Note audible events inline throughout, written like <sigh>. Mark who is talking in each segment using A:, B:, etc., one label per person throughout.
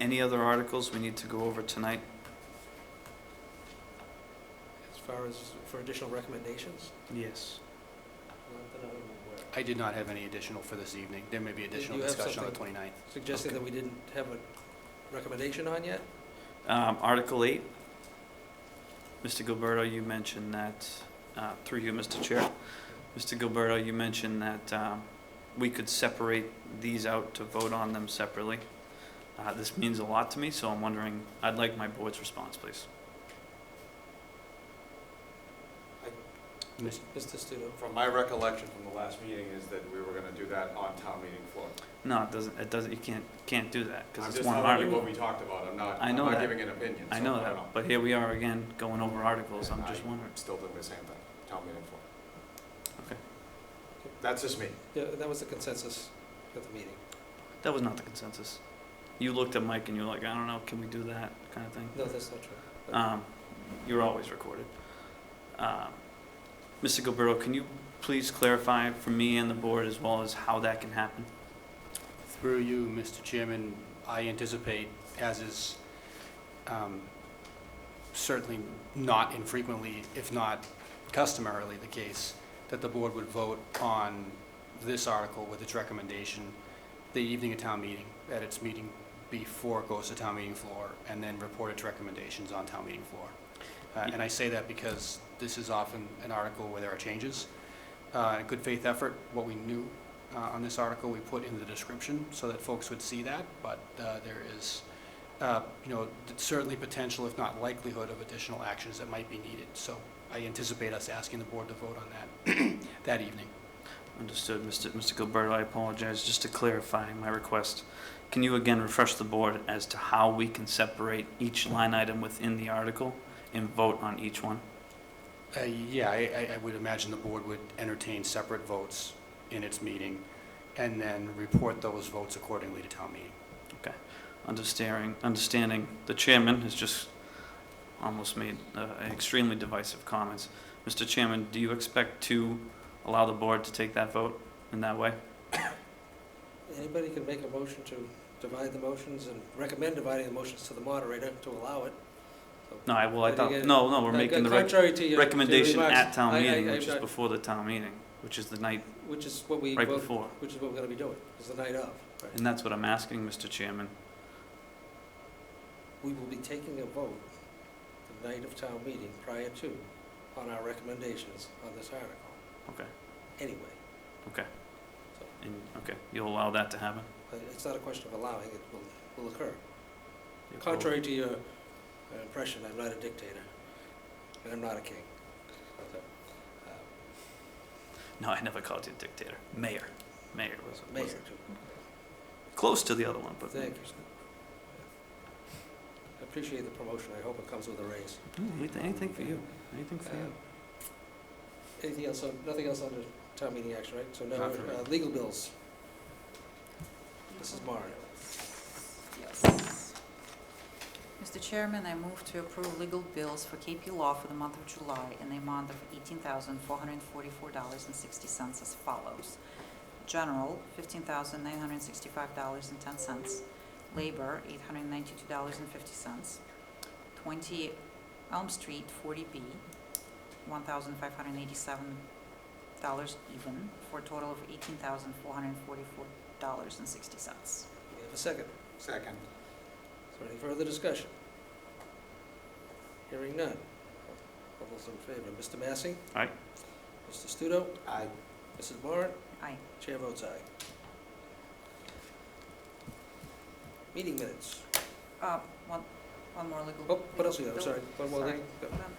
A: Any other articles we need to go over tonight?
B: As far as for additional recommendations?
A: Yes.
B: Not that I'm aware.
C: I did not have any additional for this evening. There may be additional
B: you have
C: discussion on the
B: something?
C: 29th.
B: Suggesting that we didn't have a recommendation on yet?
A: Um, Article eight. Mr. Gilberto, you mentioned that, uh, through you, Mr. Chair. Mr. Gilberto, you mentioned that, um, we could separate these out to vote on them separately. Uh, this means a lot to me, so I'm wondering, I'd like my board's response, please.
C: Mis-
B: Mr. Studo?
D: From my recollection from the last meeting is that we were gonna do that on town meeting floor.
A: No, it doesn't, it doesn't, you can't, can't do that,
D: I'm
A: because it's
D: just
A: one
D: telling you
A: article.
D: what we talked about, I'm not,
A: I
D: I'm
A: know
D: not
A: that.
D: giving an opinion, so
A: I
D: I
A: know
D: don't know.
A: that, but here we are again, going over articles, I'm
D: And
A: just
D: I-
A: wondering.
D: I'm Still doing the same thing, town meeting floor.
A: Okay.
D: That's just me.
B: Yeah, that was the consensus at the meeting.
A: That was not the consensus. You looked at Mike and you were like, I don't know, can we do that kind of thing?
B: No, that's not true.
A: Um, you're always recorded. Um, Mr. Gilberto, can you please clarify for me and the board as well as how that can happen?
C: Through you, Mr. Chairman, I anticipate, as is um, certainly not infrequently, if not customarily the case, that the board would vote on this article with its recommendation the evening of town meeting, at its meeting before it goes to town meeting floor, and then report its recommendations on town meeting floor. Uh, And I say that because this is often an article where there are changes. Uh, in Good faith effort, what we knew uh, on this article, we put in the description so that folks would see that, but uh, there is, uh, you know, certainly potential, if not likelihood, of additional actions that might be needed. So I anticipate us asking the board to vote on that <clears throat> that evening.
A: Understood, Mr. Mr. Gilberto, I apologize. Just to clarify my request, can you again refresh the board as to how we can separate each line item within the article and vote on each one?
C: Uh, Yeah, I, I- I would imagine the board would entertain separate votes in its meeting and then report those votes accordingly to town meeting.
A: understanding, understanding the chairman has just almost made uh, extremely divisive comments. Mr. Chairman, do you expect to allow the board to take that vote in that way?
B: Anybody can make a motion to divide the motions and recommend dividing the motions to the moderator to allow it.
A: No, I, well, I
B: But
A: thought,
B: again,
A: no, no, we're
B: Uh,
A: making the rec-
B: contrary to your- to your
A: recommendation
B: remarks,
A: at
B: I-
A: town
B: I-
A: meeting,
B: I-
A: which is
B: I-
A: before the town meeting, which is the night
B: Which is what we,
A: right
B: vote-
A: before.
B: which is what we're gonna be doing, is the night of.
A: And that's what I'm asking, Mr. Chairman.
B: We will be taking a vote the night of town meeting prior to, on our recommendations on this article.
A: Okay.
B: Anyway,
A: And, okay, you'll allow that to happen?
B: but it's not a question of allowing, it will, will occur.
A: You'll-
B: Contrary to your uh, impression, I'm not a dictator, and I'm not a king. So, uh,
A: No, I never called you a dictator. Mayor. Mayor was,
B: Mayor,
A: was
B: too.
A: close to the other one, but.
B: Thank you. I appreciate the promotion, I hope it comes with a raise.
A: Mm, Anything, anything for you, anything for
B: Uh,
A: you.
B: Anything else, on- nothing else under town meeting action, right? So now,
C: Not for me.
B: uh, legal bills. Mrs. Marr.
E: Yes. Mr. Chairman, I move to approve legal bills for KP Law for the month of July in the amount of $18,444.60 as follows. General, $15,965.10. Labor, $892.50. 20 Elm Street, 40B, $1,587 even, for a total of $18,444.60.
B: We have a second.
D: Second.
B: Is there any further discussion? Hearing none. All those in favor, Mr. Massey?
A: Aye.
B: Mr. Studo?
D: I,
B: Mrs. Barnes?
E: Aye.
B: Chair votes aye. Meeting minutes.
E: Uh, One, one more legal.
B: Oh, what else we got? I'm sorry. One more thing.
E: Um,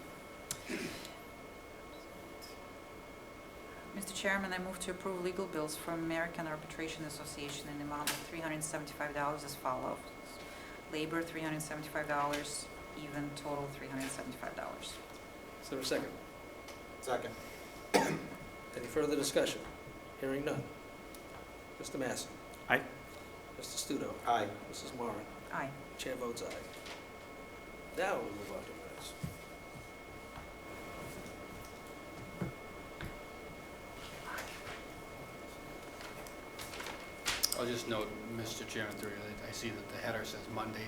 E: Mr. Chairman, I move to approve legal bills for American Arbitration Association in the amount of $375 as follows. Labor, $375, even total, $375.
B: Is there a second?
D: second.
B: Any further discussion? Hearing none. Mr. Massey?
A: Aye.
B: Mr. Studo?
D: Aye.
B: Mrs. Moran?
E: Aye.
B: Chair votes aye. Now we move on to minutes.
C: I'll just note, Mr. Chairman, through you, that I see that the header says Mondays